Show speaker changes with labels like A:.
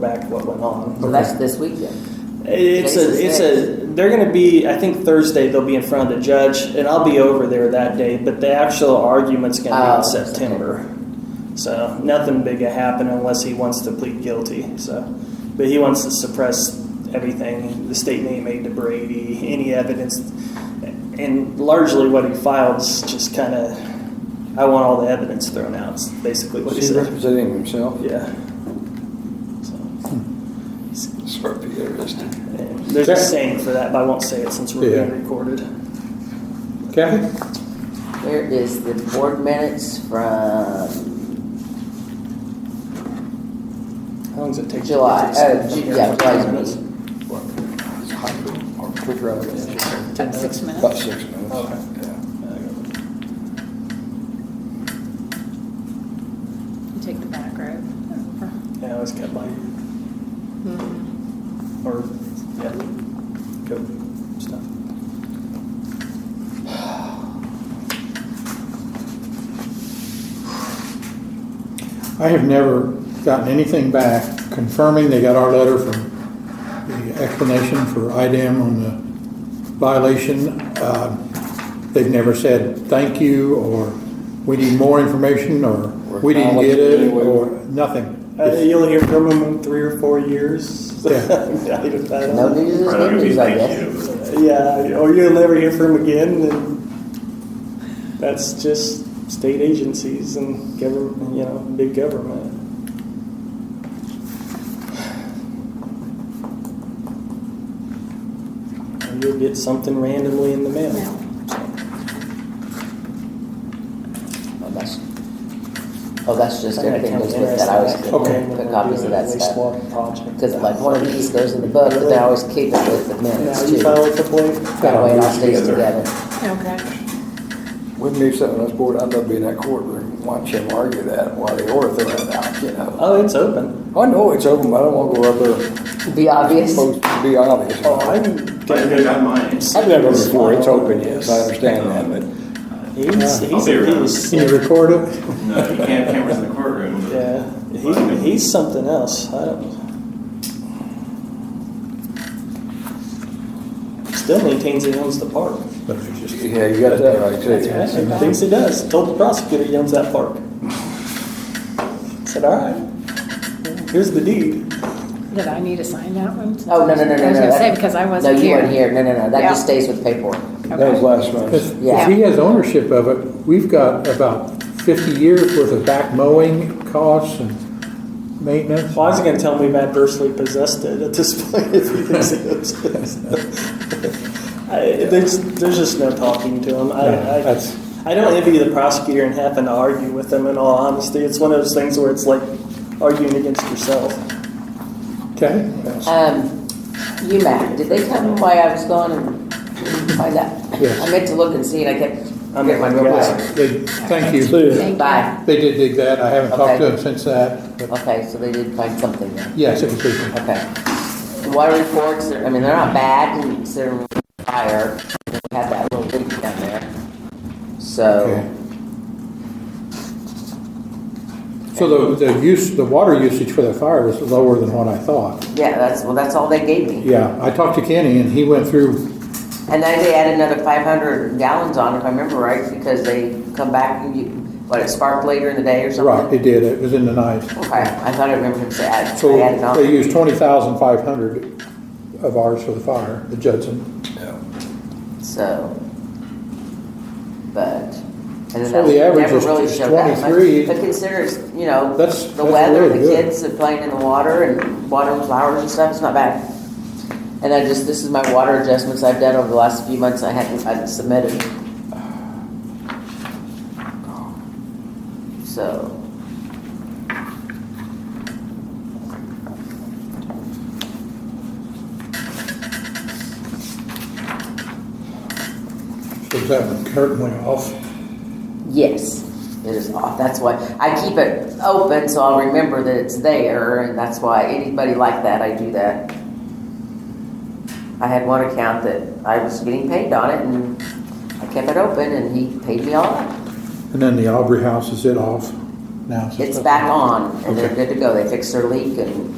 A: back what went on.
B: Well, that's this weekend.
A: It's a, it's a, they're going to be, I think Thursday they'll be in front of the judge, and I'll be over there that day, but the actual argument's going to be
B: Oh,
A: in September. So nothing big will happen unless he wants to plead guilty. So, but he wants to suppress everything the statement he made to Brady, any evidence, and largely what he files just kind of, I want all the evidence thrown out. Is basically what he
C: Is he
A: said.
C: representing himself?
A: Yeah. So.
D: Hmm.
C: Sure, be interesting.
A: There's a saying for that, but I won't say it since we're
D: Yeah.
A: being recorded.
D: Kathy?
B: There is the board minutes from
A: How long does it take? to
B: July,
A: get
B: oh,
A: this?
B: Ju- yeah, July's meeting.
C: It's hot, or quick rather than just
A: Ten
E: Six
A: minutes?
C: about
E: minutes.
C: six minutes.
A: Okay.
C: Yeah.
E: You Take the back road. over.
A: Yeah, I always got mine. Or, yeah, code stuff.
D: I have never gotten anything back confirming they got our letter from the explanation for IDAM on the violation. Uh, They've never said thank you, or we need more information, or we didn't get it, or nothing.
A: Uh, you'll hear from them in three or four years.
D: Yeah.
A: I don't
B: No
A: know.
B: news is
F: Probably
B: good
F: gonna be
B: news, I
F: thank
B: guess.
F: you.
A: Yeah, or you'll never hear from them again, and that's just state agencies and government, you know, big government. And You'll get something randomly in the mail.
B: Oh, that's- Oh, that's just everything that's with that, I always keep
A: Okay.
B: put copies of that stuff.
A: Wastewater project.
B: Because like one of these goes in the book, but then I always keep it with the
A: Now
B: minutes
A: you
B: too.
A: file a complaint?
B: That way it all stays together.
E: Okay.
C: Wouldn't be something on this board, I'd love to be in that courtroom, watch him argue that while they are throwing it out, you know.
A: Oh, it's open.
C: I know it's open, but I don't want to go up there,
B: Be obvious.
C: supposed to be obvious.
A: Oh, I'm.
F: But they got mine.
C: I've been there before, it's open, yes, I understand that, but
A: He's, he's
F: I'll be
A: a
F: around.
A: beast.
D: Can you record it?
F: No, you can't have cameras in the courtroom. but-
A: Yeah, he, he's something else. I don't. Still maintains he owns the park.
C: yeah, you got that right
A: Yeah,
C: too.
A: he thinks he does. Told the prosecutor he owns that park. Said, all right, here's the deed.
E: Did I need to sign that one?
B: Oh, no, no, no, no, no.
E: I was gonna
B: that-
E: say, because I wasn't
B: No, you
E: here.
B: weren't here. No, no, no. That
E: Yeah.
B: just stays with paperwork.
C: That was
E: Okay.
C: last
D: If
C: month.
B: Yeah.
D: if he has ownership of it, we've got about 50 years worth of back mowing costs and maintenance.
A: Well, I was gonna tell him we've adversely possessed it at this point if he thinks it owns it. I, there's, there's just no talking to him. I, I,
D: That's-
A: I don't envy the prosecutor and having to argue with him in all honesty. It's one of those things where it's like arguing against yourself.
D: Okay?
B: Um, UMac, did they tell me why I was gone and find out?
D: Yes.
B: I meant to look and see, and I kept
A: I'm
B: getting my
A: the
B: real
A: guy.
B: quick.
D: They, thank
E: Thank
D: you.
E: you.
B: Bye.
D: They did dig that. I haven't talked to
B: Okay.
D: them since that. but
B: Okay, so they did find something there.
D: Yes, it was legal.
B: Okay. Water reports, I mean, they're not bad considering fire. We had that little leak down there.
D: Okay.
B: So,
D: So the, the use, the water usage for the fire was lower than what I thought.
B: yeah, that's, well, that's all they gave me.
D: Yeah, I talked to Kenny and he went through,
B: And then they added another five hundred gallons on, if I remember right, because they come back, and you, what, it sparked later in the day or something?
D: right, it did, it was in the night.
B: Okay, I thought I remembered him say add,
D: So
B: I added on.
D: they used twenty thousand five hundred of ours for the fire, the Judson.
B: So, but, and then
D: So
B: that
D: the average
B: never
D: is-
B: really
D: is
B: showed that much.
D: 23.
B: But consider, it's, you know,
D: That's-
B: the
D: that's
B: weather,
D: really
B: the
D: good.
B: kids are playing in the water and watering flowers and stuff, it's not bad. And I just, this is my water adjustments I've done over the last few months, I hadn't, I hadn't submitted. So,
D: So is that when curtain went off?
B: yes, it is off, that's why, I keep it open so I'll remember that it's there, and that's why anybody like that, I do that. I had one account that I was getting paid on it, and I kept it open, and he paid me all up.
D: And then the Aubrey house, is it off now?
B: It's back on, and they're good to go. They fixed their leak and